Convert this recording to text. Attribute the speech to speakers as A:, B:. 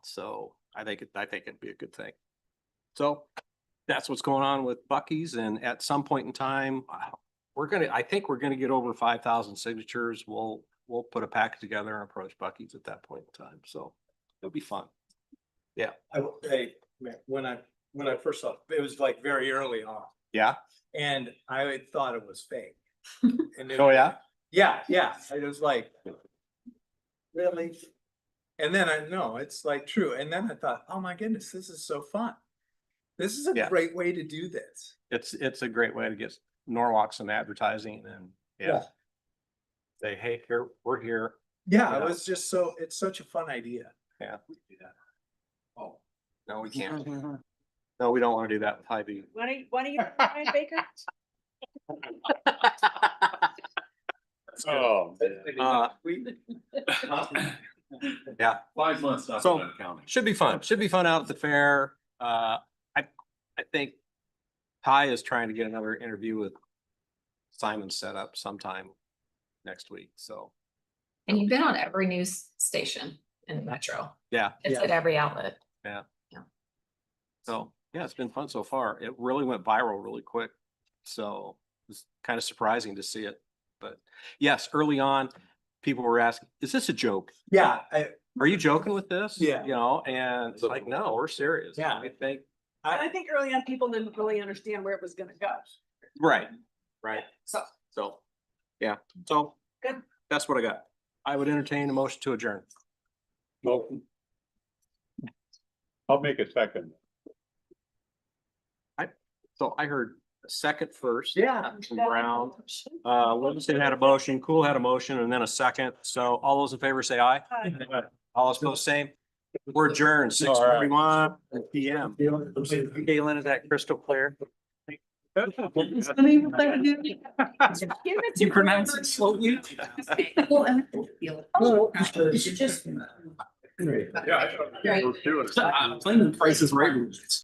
A: So I think, it- I think it'd be a good thing. So that's what's going on with Bucky's and at some point in time, I- we're gonna, I think we're gonna get over five thousand signatures. We'll, we'll put a pack together and approach Bucky's at that point in time. So it'll be fun.
B: I, will say, man, when I, when I first saw, it it was like very early on,
A: Yeah?
B: and I had thought it was fake. And it-
A: Oh, yeah?
B: Yeah, yeah, it was like. Really? And then I, no, it's like true, and then I thought, oh my goodness, this is so fun. This is a
A: Yeah.
B: great way to do this.
A: It's, it's a great way to get Norwalk some advertising and, yeah.
B: Yeah.
A: Say, hey, here, we're here.
B: Yeah, it
A: Yeah.
B: was just so, it's such a fun idea.
A: Yeah. we can do that.
B: Oh.
A: No, we can't. No, we don't want to do that with Hy-Vee.
C: Why don't, you- why don't you, Brian Baker?
D: Oh.
A: Uh, yeah.
D: uh, Five months, not
A: So-
D: counting.
A: Should be fun. Should be fun out at the fair. Uh, I, I think Ty is trying to get another interview with Simon set up sometime next week. So
E: And you've been on every news station in the metro.
A: Yeah.
E: It's
B: Yeah.
E: at every outlet.
A: So, yeah, it's been fun so far. It really went viral really quick. So it's kind of surprising to see it. But yes, early on, people were asking, is this a joke?
B: Yeah, I,
A: Are you joking with this?
B: Yeah.
A: You know, and it's like, no, we're serious.
B: Yeah.
A: I think,
C: I
B: I,
C: think early on, people didn't really understand where it was gonna go.
A: right, right.
C: So,
A: So, yeah, so
C: Good.
A: that's what I got. I would entertain a motion to adjourn.
D: I'll make a second.
A: So I heard a second first.
B: yeah,
A: And Brown, uh, Livingston had a motion, Cool had a motion, and then a second. So all those in favor say aye.
C: Hi.
A: All opposed, same. We're adjourned six forty-one PM. Galen, is that crystal clear?
C: Give it to
D: You Oh, pronounce
C: Robert.
D: it slowly.
E: Just
D: Yeah. I thought- I was doing it. I'm Playing the prices right.